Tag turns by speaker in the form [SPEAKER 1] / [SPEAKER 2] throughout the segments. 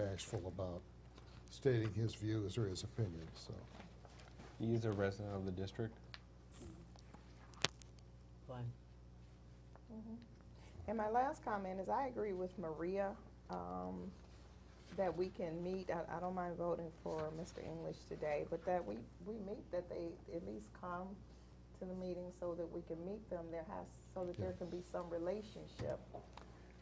[SPEAKER 1] bashful about stating his views or his opinions, so.
[SPEAKER 2] He is a resident of the district.
[SPEAKER 3] Fine.
[SPEAKER 4] And my last comment is I agree with Maria, um, that we can meet, I, I don't mind voting for Mr. English today, but that we, we meet, that they at least come to the meeting so that we can meet them, there has, so that there can be some relationship,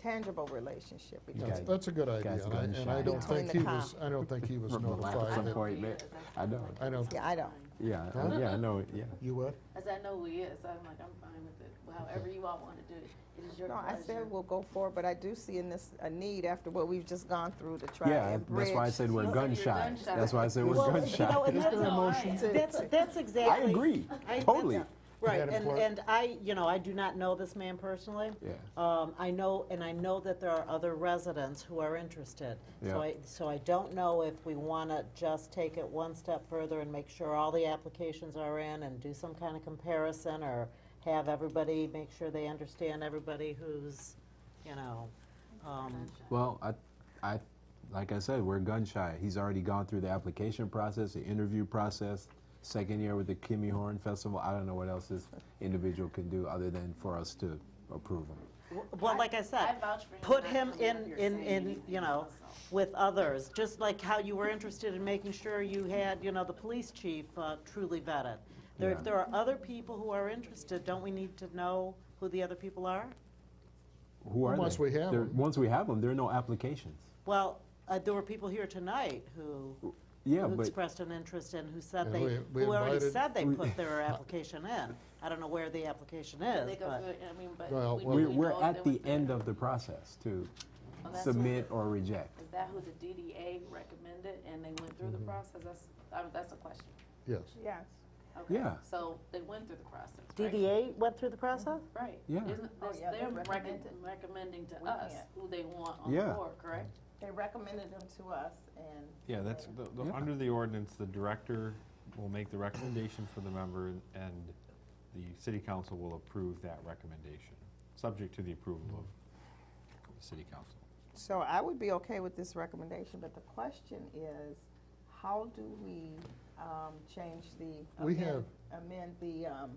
[SPEAKER 4] tangible relationship between.
[SPEAKER 1] That's,
[SPEAKER 2] gotta-
[SPEAKER 1] that's a good
[SPEAKER 2] guys
[SPEAKER 1] idea,
[SPEAKER 2] are
[SPEAKER 1] and I,
[SPEAKER 2] getting
[SPEAKER 1] and I
[SPEAKER 2] shy
[SPEAKER 1] don't
[SPEAKER 4] now.
[SPEAKER 1] think he
[SPEAKER 4] Between the
[SPEAKER 1] was, I don't think he was
[SPEAKER 2] Relax at some
[SPEAKER 1] notified that,
[SPEAKER 2] point, ma- I know,
[SPEAKER 1] I don't,
[SPEAKER 4] Yeah, I don't.
[SPEAKER 2] yeah, I-
[SPEAKER 1] Huh?
[SPEAKER 2] yeah, I know, yeah.
[SPEAKER 1] you what?
[SPEAKER 5] I said, I know who he is, so I'm like, I'm fine with it. Well, However you all want to do it, it is your
[SPEAKER 4] No, I
[SPEAKER 5] pleasure.
[SPEAKER 4] said we'll go forward, but I do see in this a need after what we've just gone through to try
[SPEAKER 2] Yeah,
[SPEAKER 4] and bridge.
[SPEAKER 2] that's why I said we're
[SPEAKER 5] You're
[SPEAKER 2] gun shy.
[SPEAKER 5] gun shy.
[SPEAKER 2] That's why I said we're
[SPEAKER 3] Well, you
[SPEAKER 2] gun
[SPEAKER 3] know,
[SPEAKER 2] shy.
[SPEAKER 3] and that's,
[SPEAKER 5] That's all right.
[SPEAKER 4] to-
[SPEAKER 3] that's,
[SPEAKER 4] to-
[SPEAKER 3] that's exactly.
[SPEAKER 2] I agree,
[SPEAKER 3] I-
[SPEAKER 2] totally.
[SPEAKER 3] that's- Right,
[SPEAKER 1] Madam
[SPEAKER 3] and,
[SPEAKER 1] Clerk.
[SPEAKER 3] and I, you know, I do not know this man personally.
[SPEAKER 2] Yeah.
[SPEAKER 3] Um, I know, and I know that there are other residents who are interested.
[SPEAKER 2] Yeah.
[SPEAKER 3] So I, so I don't know if we want to just take it one step further and make sure all the applications are in and do some kind of comparison or have everybody, make sure they understand everybody who's, you know, um,
[SPEAKER 2] Well, I, I, like I said, we're gun shy. He's already gone through the application process, the interview process, second year with the Kimmy Horn Festival. I don't know what else this individual can do other than for us to approve him.
[SPEAKER 3] w- well, like I
[SPEAKER 5] I
[SPEAKER 3] said,
[SPEAKER 5] vouch for him.
[SPEAKER 3] put
[SPEAKER 5] not
[SPEAKER 3] him
[SPEAKER 5] coming up
[SPEAKER 3] in,
[SPEAKER 5] here
[SPEAKER 3] in,
[SPEAKER 5] saying
[SPEAKER 3] in,
[SPEAKER 5] anything
[SPEAKER 3] you know,
[SPEAKER 5] else, so.
[SPEAKER 3] with others, just like how you were interested in making sure you had, you know, the police chief uh, truly vetted. There,
[SPEAKER 2] Yeah.
[SPEAKER 3] if there are other people who are interested, don't we need to know who the other people are?
[SPEAKER 2] Who are they?
[SPEAKER 1] Once we have
[SPEAKER 2] There-
[SPEAKER 1] them.
[SPEAKER 2] Once we have them, there are no applications.
[SPEAKER 3] Well, uh, there were people here tonight who,
[SPEAKER 2] Yeah,
[SPEAKER 3] who
[SPEAKER 2] but
[SPEAKER 3] expressed an interest and who said
[SPEAKER 1] And
[SPEAKER 3] they,
[SPEAKER 1] we- we
[SPEAKER 3] who already
[SPEAKER 1] invited-
[SPEAKER 3] said they
[SPEAKER 2] we-
[SPEAKER 3] put their application in. I don't know where the application
[SPEAKER 5] They
[SPEAKER 3] is,
[SPEAKER 5] go
[SPEAKER 3] but,
[SPEAKER 5] through it, I mean, but.
[SPEAKER 1] Well,
[SPEAKER 5] we-
[SPEAKER 1] well-
[SPEAKER 5] we
[SPEAKER 2] we're, we're
[SPEAKER 5] know
[SPEAKER 2] at
[SPEAKER 5] that
[SPEAKER 2] the
[SPEAKER 5] we-
[SPEAKER 2] end of the process to
[SPEAKER 5] Oh, that's
[SPEAKER 2] submit or reject.
[SPEAKER 5] Is that who the DDA recommended and they went through the
[SPEAKER 2] Mm-hmm.
[SPEAKER 5] process? That's, I mean, that's a question.
[SPEAKER 1] Yes.
[SPEAKER 4] Yes.
[SPEAKER 5] Okay.
[SPEAKER 2] Yeah.
[SPEAKER 5] So they went through the process, right?
[SPEAKER 3] DDA went through the process?
[SPEAKER 5] Right.
[SPEAKER 2] Yeah.
[SPEAKER 5] Isn't,
[SPEAKER 4] Oh,
[SPEAKER 5] that's
[SPEAKER 4] yeah, they
[SPEAKER 5] them
[SPEAKER 4] recommended.
[SPEAKER 5] recom- recommending to
[SPEAKER 4] We
[SPEAKER 5] us
[SPEAKER 4] can't.
[SPEAKER 5] who they want on
[SPEAKER 2] Yeah.
[SPEAKER 5] the board, correct?
[SPEAKER 4] They recommended them to us and.
[SPEAKER 6] Yeah, that's, the- the-
[SPEAKER 2] Yeah.
[SPEAKER 6] under the ordinance, the director will make the recommendation for the member, and- and the city council will approve that recommendation, subject to the approval of the city council.
[SPEAKER 4] So I would be okay with this recommendation, but the question is, how do we um, change the.
[SPEAKER 1] We
[SPEAKER 4] amend- Amend the, um,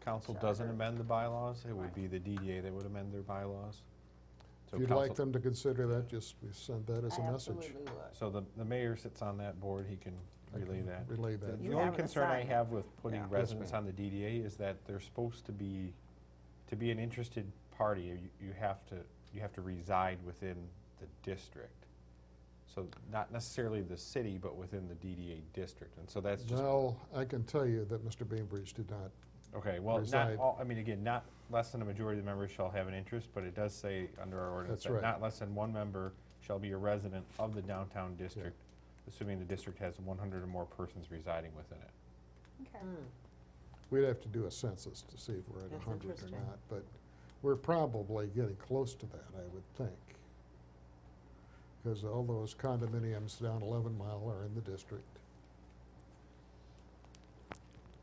[SPEAKER 6] Council
[SPEAKER 4] Charter.
[SPEAKER 6] doesn't amend the bylaws, it would be the DDA that would amend their bylaws. So
[SPEAKER 1] If you'd like
[SPEAKER 6] council-
[SPEAKER 1] them to consider that, just we send that as
[SPEAKER 4] I
[SPEAKER 1] a message.
[SPEAKER 4] absolutely would.
[SPEAKER 6] So the, the mayor sits on that board, he can relay that.
[SPEAKER 1] Relay
[SPEAKER 6] The-
[SPEAKER 1] that.
[SPEAKER 4] You
[SPEAKER 6] The
[SPEAKER 4] have
[SPEAKER 6] only
[SPEAKER 4] an
[SPEAKER 6] concern I
[SPEAKER 4] assignment.
[SPEAKER 6] have with putting
[SPEAKER 1] Yes,
[SPEAKER 6] residents on the DDA is that they're supposed to be, to be an interested party, you, you have to, you have to reside within the district. So not necessarily the city, but within the DDA district, and so that's just,
[SPEAKER 1] Well, I can tell you that Mr. Bainbridge did not,
[SPEAKER 6] okay, well, not
[SPEAKER 1] reside.
[SPEAKER 6] all, I mean, again, not less than a majority of the members shall have an interest, but it does say under our ordinance
[SPEAKER 1] That's right.
[SPEAKER 6] that not less than one member shall be a resident of the downtown district, assuming the district has one hundred or more persons residing within it.
[SPEAKER 4] Okay.
[SPEAKER 3] Hmm.
[SPEAKER 1] we'd have to do a census to see if we're at
[SPEAKER 3] That's
[SPEAKER 1] a hundred or
[SPEAKER 3] interesting.
[SPEAKER 1] not, but we're probably getting close to that, I would think. Because all those condominiums down eleven mile are in the district.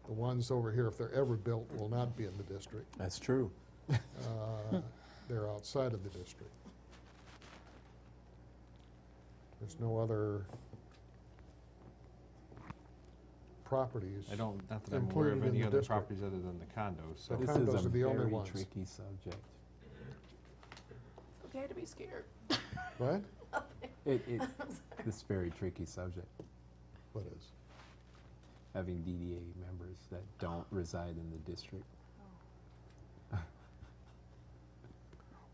[SPEAKER 1] The ones over here, if they're ever built, will not be in the district.
[SPEAKER 2] That's true.
[SPEAKER 1] Uh, They're outside of the district. There's no other properties.
[SPEAKER 6] I don't, not that I'm aware
[SPEAKER 1] Included
[SPEAKER 6] of
[SPEAKER 1] in
[SPEAKER 6] any
[SPEAKER 1] the
[SPEAKER 6] other
[SPEAKER 1] district.
[SPEAKER 6] properties other than the condos, so.
[SPEAKER 1] The
[SPEAKER 2] This
[SPEAKER 1] condos
[SPEAKER 2] is a
[SPEAKER 1] are the only
[SPEAKER 2] very
[SPEAKER 1] ones.
[SPEAKER 2] tricky subject.
[SPEAKER 5] It's Okay to be scared.
[SPEAKER 1] What?
[SPEAKER 2] It, it, it's a very tricky subject,
[SPEAKER 1] What is?
[SPEAKER 2] having DDA members that don't reside in the district,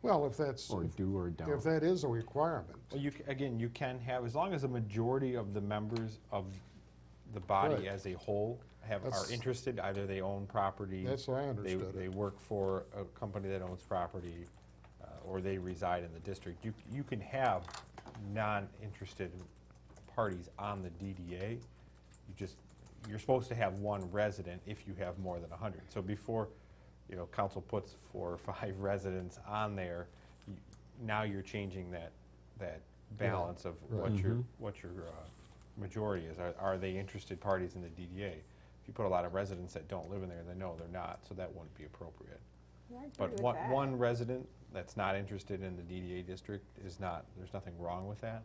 [SPEAKER 1] Well, if that's,
[SPEAKER 2] or do or don't.
[SPEAKER 1] if that is a requirement,
[SPEAKER 6] Well, you, c- again, you can have, as long as a majority of the members of the
[SPEAKER 1] Right.
[SPEAKER 6] body as a whole have, are
[SPEAKER 1] That's-
[SPEAKER 6] interested, either they own property.
[SPEAKER 1] that's what I
[SPEAKER 6] they-
[SPEAKER 1] understood
[SPEAKER 6] They
[SPEAKER 1] it.
[SPEAKER 6] work for a company that owns property, uh, or they reside in the district. You, you can have non-interested parties on the DDA. You just, you're supposed to have one resident if you have more than 100. So before, you know, council puts four or five residents on there, you- now you're changing that, that balance of what
[SPEAKER 1] right.
[SPEAKER 6] your, what your uh, majority is. Are- Are they interested parties in the DDA? If you put a lot of residents that don't live in there, then no, they're not, so that wouldn't be appropriate.
[SPEAKER 4] Yeah, I agree
[SPEAKER 6] But
[SPEAKER 4] with
[SPEAKER 6] one,
[SPEAKER 4] that.
[SPEAKER 6] one resident that's not interested in the DDA district is not, there's nothing wrong with that.